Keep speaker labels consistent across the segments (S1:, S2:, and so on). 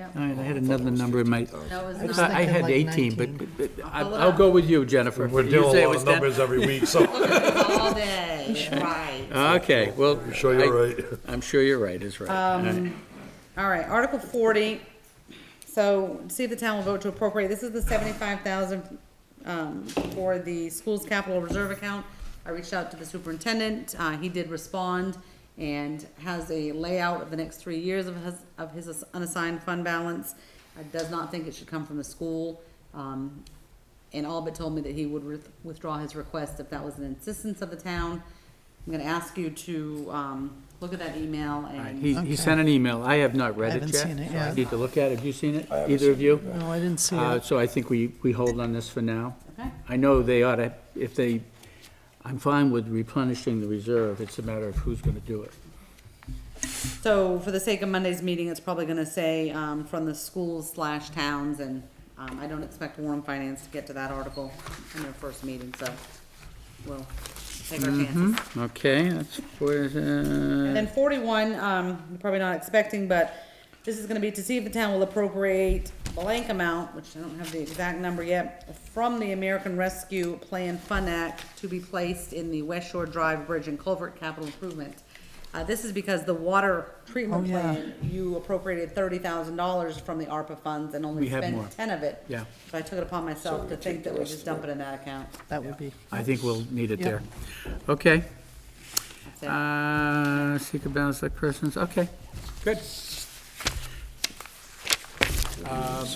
S1: Yep.
S2: All right, I had another number in my,
S1: No, it
S2: I
S1: was not.
S2: thought I
S3: thinking
S2: had
S3: like
S2: 18, but
S3: 19.
S2: but- but I- I'll go with you, Jennifer.
S4: We're
S2: You
S4: dealing
S2: say it
S4: a lot
S2: was
S4: of
S2: 10?
S4: numbers every week, so
S5: all day, right.
S2: Okay, well.
S4: I'm sure you're right.
S2: I'm sure you're right, is right.
S1: Um,
S2: All
S1: All
S2: right.
S1: right, Article forty, so see if the town will vote to appropriate, this is the seventy-five thousand, um, for the school's capital reserve account. I reached out to the superintendent, uh, he did respond and has a layout of the next three years of his, of his unassigned fund balance. I does not think it should come from the school, um, and all but told me that he would with- withdraw his request if that was an insistence of the town. I'm gonna ask you to, um, look at that email and.
S2: He he sent an email. I have not read it
S3: haven't
S2: yet.
S3: seen it
S2: so I
S3: yet.
S2: need to look at it. Have you seen it? Either of you?
S3: No, I didn't see
S2: Uh,
S3: it.
S2: So I think we, we hold on this for now.
S1: Okay.
S2: I know they ought to, if they, I'm fine with replenishing the reserve. It's a matter of who's going to do it.
S1: So for the sake of Monday's meeting, it's probably gonna say, um, from the schools slash towns, and, um, I don't expect Warren Finance to get to that article in their first meeting, so we'll take our chances.
S2: Okay, that's, where is
S1: And
S2: it?
S1: then forty-one, um, you're probably not expecting, but this is gonna be to see if the town will appropriate blank amount, which I don't have the exact number yet, from the American Rescue Plan Fund Act to be placed in the West Shore Drive Bridge and Culvert Capital Improvement. Uh, this is because the water treatment
S3: Oh, yeah.
S1: plan, you appropriated thirty thousand dollars from the ARPA funds and
S2: We
S1: only
S2: have more.
S1: spent ten of it.
S2: Yeah.
S1: So I took it upon myself to think that we just dump it in that account.
S3: That would be,
S2: I think we'll need it
S3: Yeah.
S2: there. Okay.
S1: That's it.
S2: Uh, seek a balance like persons, okay, good. Um,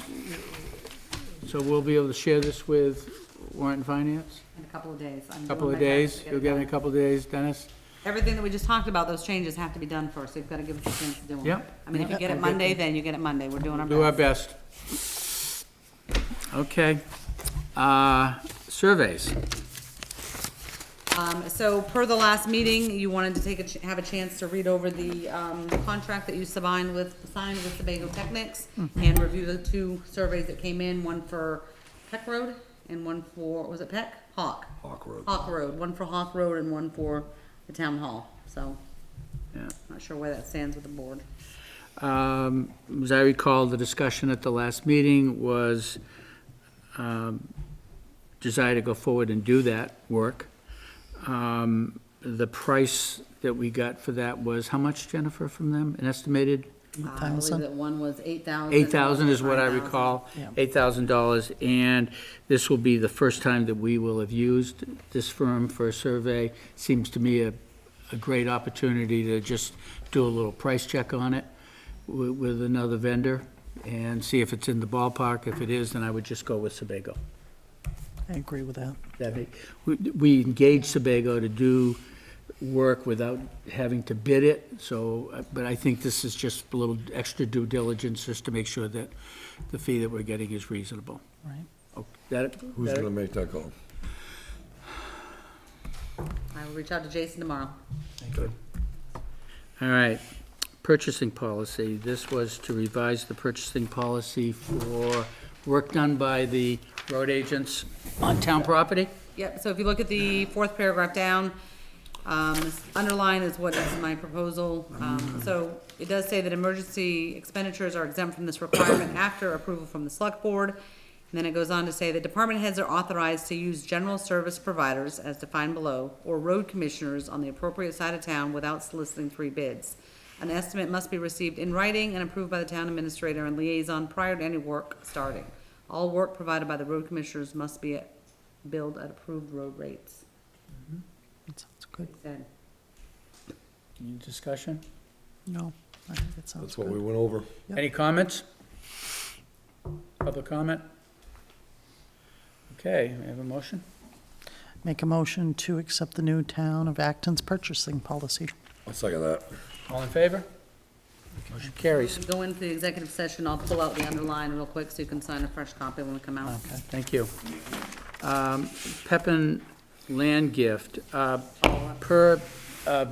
S2: So we'll be able to share this with warrant and finance,
S1: In a couple of days. I'm
S2: a
S1: doing
S2: couple
S1: Oh my
S2: of
S1: best to
S2: days,
S1: it
S2: you'll get it
S1: done.
S2: in a couple of days, Dennis?
S1: Everything that we just talked about, those changes have to be done first, so you've gotta give us a chance to do them.
S2: Yep.
S1: I mean, if you get it Monday, then you get it Monday, we're doing
S2: Do
S1: our
S2: our
S1: best.
S2: best. Okay, uh, surveys,
S1: Um, so per the last meeting, you wanted to take a, ch- have a chance to read over the, um, contract that you signed with, signed with Sebago Technics
S2: Mm-hmm.
S1: and review the two surveys that came in, one for Peck Road and one for, was it Peck? Hawk.
S4: Hawk Road.
S1: Hawk Road, one for Hawk Road and one for the town hall, so,
S2: yeah.
S1: not sure where that stands with the board.
S2: Um, As I recall, the discussion at the last meeting was um, desire to go forward and do that work. Um, The price that we got for that was, how much, Jennifer, from them? An estimated
S1: Uh, I believe
S3: 8,000.
S1: that one was eight thousand.
S2: eight thousand is what I
S1: 9,000.
S2: recall,
S3: Yeah.
S2: eight thousand dollars. And this will be the first time that we will have used this firm for a survey. Seems to me a, a great opportunity to just do a little price check on it with, with another vendor and see if it's in the ballpark. If it is, then I would just go with Sebago.
S3: I agree with that.
S2: That make- We we engaged Sebago to do work without having to bid it, so, uh, but I think this is just a little extra due diligence just to make sure that the fee that we're getting is reasonable.
S3: Right.
S2: Oh, That,
S4: Who's
S2: that-
S4: gonna make that call?
S1: I will reach out to Jason tomorrow.
S2: all right. Purchasing policy, this was to revise the purchasing policy for work done by the road agents on town property.
S1: Yep, so if you look at the fourth paragraph down, um, this underline is what is my proposal. Um, so it does say that emergency expenditures are exempt from this requirement after approval from the select board. And then it goes on to say that department heads are authorized to use general service providers as defined below or road commissioners on the appropriate side of town without soliciting three bids. An estimate must be received in writing and approved by the town administrator and liaison prior to any work starting. All work provided by the road commissioners must be billed at approved road rates.
S3: That sounds good.
S1: Then,
S2: Any discussion?
S3: No, I think it sounds
S4: That's what
S3: good.
S4: we went over.
S3: Yep.
S2: Any comments? Public comment? Okay, we have a motion?
S3: Make a motion to accept the new town of Acton's purchasing policy.
S4: I'll second that.
S2: All in favor? Motion carries.
S1: go into the executive session, I'll pull out the underline real quick so you can sign a fresh copy when we come out.
S2: Okay, thank you. Um, Pepin land gift, uh, per, uh,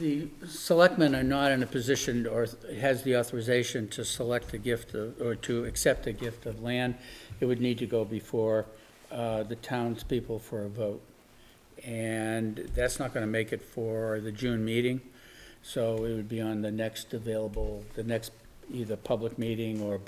S2: the selectmen are not in a position or has the authorization to select the gift of- or to accept a gift of land. It would need to go before uh, the townspeople for a vote. And that's not going to make it for the June meeting, so it would be on the next available, the next either public meeting or